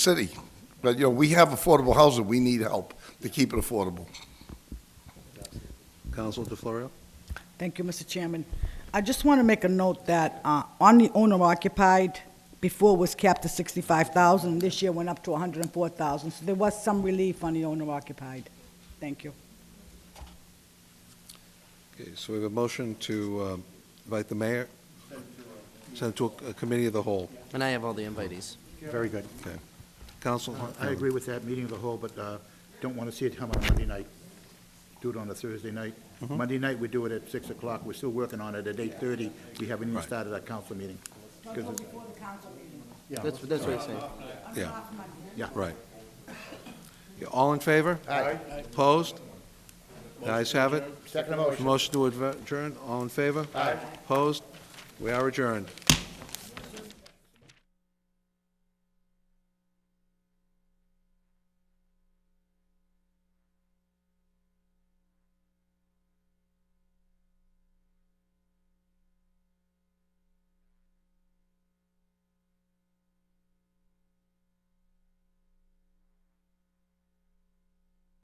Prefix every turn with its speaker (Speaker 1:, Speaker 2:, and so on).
Speaker 1: city. But, you know, we have affordable housing, we need help to keep it affordable.
Speaker 2: Counsel DeFlorio?
Speaker 3: Thank you, Mr. Chairman. I just want to make a note that uh, on the owner occupied, before was capped at 65,000, this year went up to 104,000, so there was some relief on the owner occupied. Thank you.
Speaker 2: Okay, so we have a motion to um, invite the mayor? Send it to a a committee of the whole.
Speaker 4: And I have all the invitees.
Speaker 5: Very good.
Speaker 2: Counsel?
Speaker 5: Uh, I agree with that, meeting of the whole, but uh, don't want to see it come on Monday night. Do it on a Thursday night. Monday night, we do it at 6 o'clock. We're still working on it at 8:30. We haven't even
Speaker 2: Right.
Speaker 5: started our council meeting. Because it-
Speaker 3: before the council meeting.
Speaker 5: Yeah,
Speaker 4: That's, that's what I'm saying.
Speaker 2: Yeah,
Speaker 5: yeah.
Speaker 2: right. Yeah, All in favor? Aye. Opposed? The ayes have it.
Speaker 5: Second motion.
Speaker 2: Motion to adjourn, all in favor? Aye. Opposed? We are adjourned.